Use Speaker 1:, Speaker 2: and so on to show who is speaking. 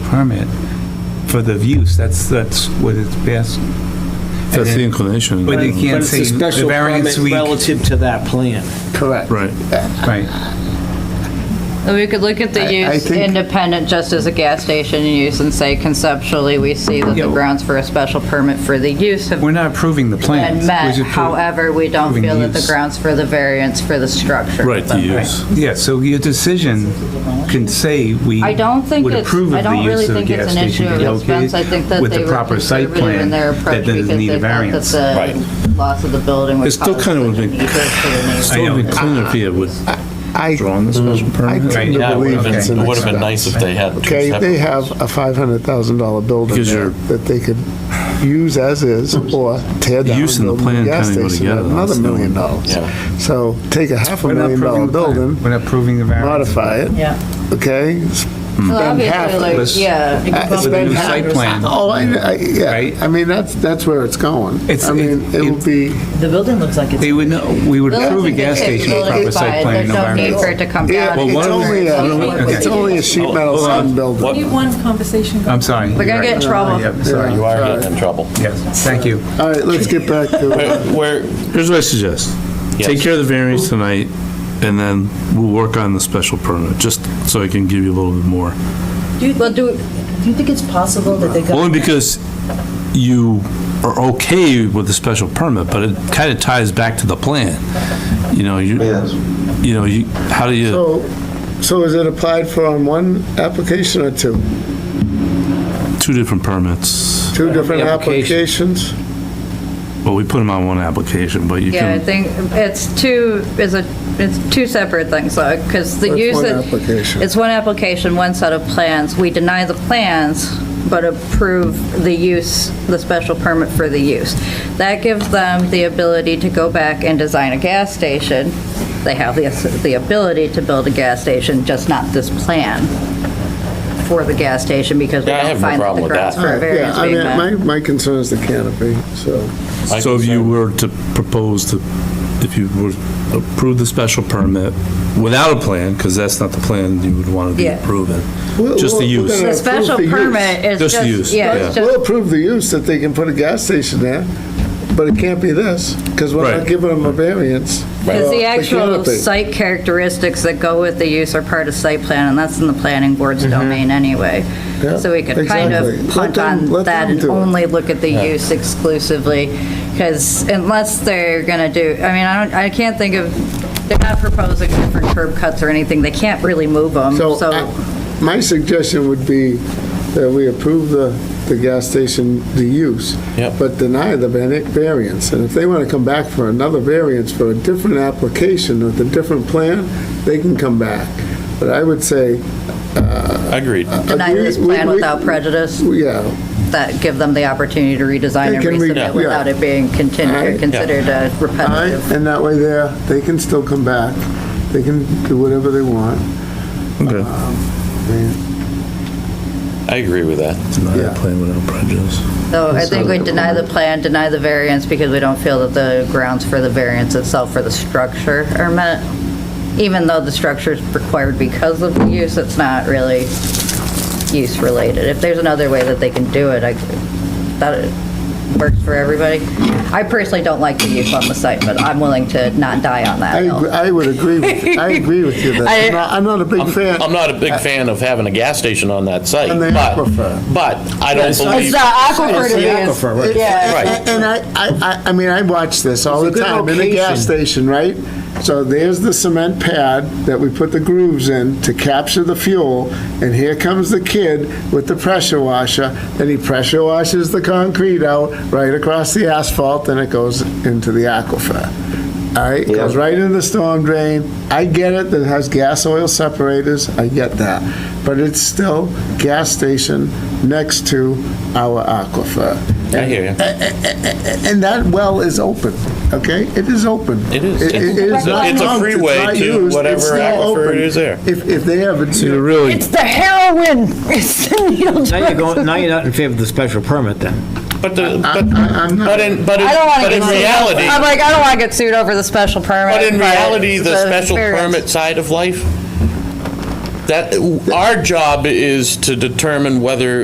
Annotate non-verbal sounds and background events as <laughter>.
Speaker 1: permit for the use, that's, that's what it's best.
Speaker 2: That's the inclination,
Speaker 1: But you
Speaker 2: right?
Speaker 1: can't
Speaker 3: But it's a
Speaker 1: say the
Speaker 3: special
Speaker 1: variance
Speaker 3: permit
Speaker 1: we,
Speaker 3: Relative to that plan.
Speaker 4: Correct.
Speaker 1: right,
Speaker 5: Well, We could look at
Speaker 4: I-
Speaker 5: the
Speaker 4: I
Speaker 5: use
Speaker 4: think-
Speaker 5: independent, just as a gas station use, and say conceptually, we see that
Speaker 1: Yeah,
Speaker 5: the
Speaker 1: well-
Speaker 5: grounds for a special permit for the use have
Speaker 1: we're not approving the plans.
Speaker 5: been met.
Speaker 1: We're just appro-
Speaker 5: However, we don't
Speaker 1: approving
Speaker 5: feel that the
Speaker 1: use.
Speaker 5: grounds for the variance for the structure.
Speaker 2: Right, the
Speaker 5: have been met.
Speaker 2: use.
Speaker 1: Yeah, so your decision can say we
Speaker 5: I don't think
Speaker 1: would
Speaker 5: it's-
Speaker 1: approve
Speaker 5: I
Speaker 1: of the
Speaker 5: don't really
Speaker 1: use of a
Speaker 5: think it's
Speaker 1: gas
Speaker 5: an
Speaker 1: station
Speaker 5: issue
Speaker 1: to
Speaker 5: of
Speaker 1: be
Speaker 5: expense. I think
Speaker 1: located
Speaker 5: that
Speaker 1: with
Speaker 5: they
Speaker 1: the
Speaker 5: were
Speaker 1: proper site
Speaker 5: conservative
Speaker 1: plan
Speaker 5: in their
Speaker 1: that
Speaker 5: approach
Speaker 1: doesn't
Speaker 5: because
Speaker 1: need
Speaker 5: they
Speaker 1: a
Speaker 5: thought that
Speaker 1: variance.
Speaker 5: the loss of the building
Speaker 2: It
Speaker 5: would
Speaker 2: still
Speaker 5: cause
Speaker 2: kind of
Speaker 5: such
Speaker 2: would
Speaker 5: an
Speaker 2: be-
Speaker 5: evil to the neighborhood.
Speaker 2: It would be cleaner if you would
Speaker 4: I, Mm.
Speaker 2: draw on the special
Speaker 4: I
Speaker 2: permit.
Speaker 4: tend to
Speaker 6: Yeah, it would
Speaker 4: believe
Speaker 6: have
Speaker 4: it's
Speaker 6: been,
Speaker 4: an
Speaker 6: it would have been
Speaker 4: expense.
Speaker 6: nice if they had two
Speaker 4: Okay,
Speaker 6: separate
Speaker 4: they
Speaker 6: ones.
Speaker 4: have a $500,000 building
Speaker 2: Because
Speaker 4: there
Speaker 2: you're-
Speaker 4: that they could use as is or tear down.
Speaker 2: Use and the
Speaker 4: build a
Speaker 2: plan
Speaker 4: gas
Speaker 2: kinda go
Speaker 4: station,
Speaker 2: together, that's
Speaker 4: Another
Speaker 2: the only-
Speaker 4: million dollars.
Speaker 6: Yeah.
Speaker 4: So take a half a
Speaker 1: We're not
Speaker 4: million dollar
Speaker 1: approving the plan.
Speaker 4: building,
Speaker 1: We're not approving the variance.
Speaker 4: modify it,
Speaker 5: Yeah.
Speaker 4: okay?
Speaker 5: Well,
Speaker 4: half
Speaker 5: obviously,
Speaker 4: of
Speaker 1: this-
Speaker 5: like, yeah.
Speaker 1: With a new site plan.
Speaker 4: Oh, I, I-
Speaker 1: Right?
Speaker 4: yeah, I mean, that's, that's where it's going.
Speaker 1: It's-
Speaker 4: I mean,
Speaker 1: it-
Speaker 4: it'll be,
Speaker 7: The building looks like it's.
Speaker 1: They would know, we would
Speaker 5: Well,
Speaker 1: approve a gas
Speaker 5: that's the case.
Speaker 1: station with
Speaker 5: Well,
Speaker 1: proper
Speaker 5: it's
Speaker 1: site
Speaker 5: fine.
Speaker 1: plan and
Speaker 5: There's no need for it
Speaker 1: environmental.
Speaker 5: to come
Speaker 4: yeah,
Speaker 5: down.
Speaker 4: it's only a,
Speaker 5: It's
Speaker 4: it's only a sheet metal
Speaker 6: Hold on.
Speaker 4: sun building.
Speaker 6: What-
Speaker 8: Need one conversation.
Speaker 1: I'm sorry.
Speaker 5: We're
Speaker 1: you're
Speaker 5: gonna get in
Speaker 1: right.
Speaker 5: trouble.
Speaker 1: Yep, sorry.
Speaker 6: You are getting in trouble.
Speaker 1: Yes, thank you.
Speaker 4: All right, let's get back to,
Speaker 6: Where,
Speaker 2: Here's what I suggest. Take
Speaker 6: Yes.
Speaker 2: care of the variance tonight, and then we'll work on the special permit, just so I can give you a little bit more.
Speaker 7: Do you, well, do, do you think it's possible that they got?
Speaker 2: Only because you are okay with the special permit, but it kind of ties back to the plan. You know, you, you know, you, how do you,
Speaker 4: so, so is it applied for on one application or two?
Speaker 2: two different permits.
Speaker 4: Two different
Speaker 3: Application.
Speaker 4: applications?
Speaker 2: Well, we put them on one application, but you
Speaker 5: Yeah, I
Speaker 2: can,
Speaker 5: think it's two, is a, it's two separate things, though, because the
Speaker 4: That's
Speaker 5: use.
Speaker 4: one
Speaker 5: it-
Speaker 4: application.
Speaker 5: It's one application, one set of plans. We deny the plans, but approve the use, the special permit for the use. That gives them the ability to go back and design a gas station. They have the, the ability to build a gas station, just not this plan for the gas station, because we
Speaker 6: Yeah, I
Speaker 5: don't
Speaker 6: have no
Speaker 5: find that
Speaker 6: problem
Speaker 5: the
Speaker 6: with
Speaker 5: grounds
Speaker 6: that.
Speaker 5: for a variance
Speaker 4: Yeah, I
Speaker 5: being
Speaker 4: mean,
Speaker 5: met.
Speaker 4: my, my concern is the canopy, so.
Speaker 2: so if you were to propose to, if you were to approve the special permit without a plan, because that's not the plan you would want to be
Speaker 5: Yeah.
Speaker 2: approving,
Speaker 4: We'll-
Speaker 2: just the
Speaker 4: we'll- we're
Speaker 2: use.
Speaker 4: gonna
Speaker 5: The
Speaker 4: approve
Speaker 5: special
Speaker 4: the use.
Speaker 5: permit is
Speaker 2: Just the
Speaker 5: just,
Speaker 2: use,
Speaker 5: yeah,
Speaker 2: yeah.
Speaker 5: it's just
Speaker 4: We'll approve the use that they can put a gas station there, but it can't be this, because we're
Speaker 2: Right.
Speaker 4: not giving them a variance.
Speaker 5: Because the actual
Speaker 4: canopy.
Speaker 5: site characteristics that go with the use are part of site plan, and that's in the planning board's domain anyway.
Speaker 4: Yeah,
Speaker 5: So we could kind
Speaker 4: exactly.
Speaker 5: of
Speaker 4: Let
Speaker 5: punt
Speaker 4: them-
Speaker 5: on
Speaker 4: let
Speaker 5: that
Speaker 4: them
Speaker 5: and
Speaker 4: do it.
Speaker 5: only look at the use exclusively, because unless they're gonna do, I mean, I don't, I can't think of, they're not proposing different curb cuts or anything, they can't really move them,
Speaker 4: So uh, I-
Speaker 5: so,
Speaker 4: my suggestion would be that we approve the, the gas station, the use,
Speaker 6: Yep.
Speaker 4: but deny the vari- variance. And if they want to come back for another variance for a different application with a different plan, they can come back. But I would say,
Speaker 6: agreed.
Speaker 5: deny
Speaker 4: agree-
Speaker 5: this
Speaker 4: we-
Speaker 5: plan
Speaker 4: we-
Speaker 5: without prejudice,
Speaker 4: yeah,
Speaker 5: that give them the opportunity to redesign
Speaker 4: They
Speaker 5: and
Speaker 4: can re- yeah.
Speaker 5: resubmit without it being
Speaker 4: Alright.
Speaker 5: continued, considered a
Speaker 4: All right,
Speaker 5: repetitive.
Speaker 4: and that way there, they can still come back, they can do whatever they want.
Speaker 2: Okay.
Speaker 6: I agree with that.
Speaker 2: Not
Speaker 4: Yeah.
Speaker 2: a plan without prejudice.
Speaker 5: So I
Speaker 4: So
Speaker 5: think we
Speaker 4: that-
Speaker 5: deny the plan, deny the variance, because we don't feel that the grounds for the variance itself for the structure are met. Even though the structure is required because of the use, it's not really use-related. If there's another way that they can do it, I, that works for everybody. I personally don't like the use on the site, but I'm willing to not die on that
Speaker 4: I,
Speaker 5: hill.
Speaker 4: agree- I would agree with, you. I agree with you,
Speaker 5: <laughs>
Speaker 4: that,
Speaker 5: I-
Speaker 4: I'm not- I'm not a big fan.
Speaker 6: I'm not a big fan of having a gas station on that site,
Speaker 4: And the
Speaker 6: but,
Speaker 4: aquifer.
Speaker 6: but I don't believe,
Speaker 5: aquifer
Speaker 4: It's the aquifer, right?
Speaker 6: Right.
Speaker 4: And and I, I, I- I mean, I watch this all the
Speaker 3: It's a good
Speaker 4: time, in a gas station, right? So there's the cement pad that we put the grooves in to capture the fuel, and here comes the kid with the pressure washer, and he pressure washes the concrete out right across the asphalt, and it goes into the aquifer. All right, It goes right in the storm drain. I get it, that it has gas oil separators, I get that. But it's still gas station next to our aquifer.
Speaker 6: I hear you.
Speaker 4: Eh, And that well is open, okay? It is open.
Speaker 6: It is.
Speaker 4: It it is
Speaker 6: It's a-
Speaker 4: not
Speaker 6: it's a
Speaker 4: pumped, it's
Speaker 6: freeway
Speaker 4: not
Speaker 6: to
Speaker 4: used, it's
Speaker 6: whatever
Speaker 4: still
Speaker 6: aquifer
Speaker 4: open.
Speaker 6: it is there.
Speaker 4: If, if they have a.
Speaker 2: You're really
Speaker 7: It's the heroin. <laughs> It's the needle.
Speaker 3: Now you're going, now you're not in favor of the special permit then.
Speaker 6: But, the- but,
Speaker 4: I- I'm not-
Speaker 6: but in, but in,
Speaker 5: I don't want to
Speaker 6: but
Speaker 5: get
Speaker 6: in
Speaker 5: sued.
Speaker 6: reality,
Speaker 5: I'm like, I don't want to get sued over the special permit.
Speaker 6: but in reality, the special
Speaker 5: variance.
Speaker 6: permit side of life, that, our job is to determine whether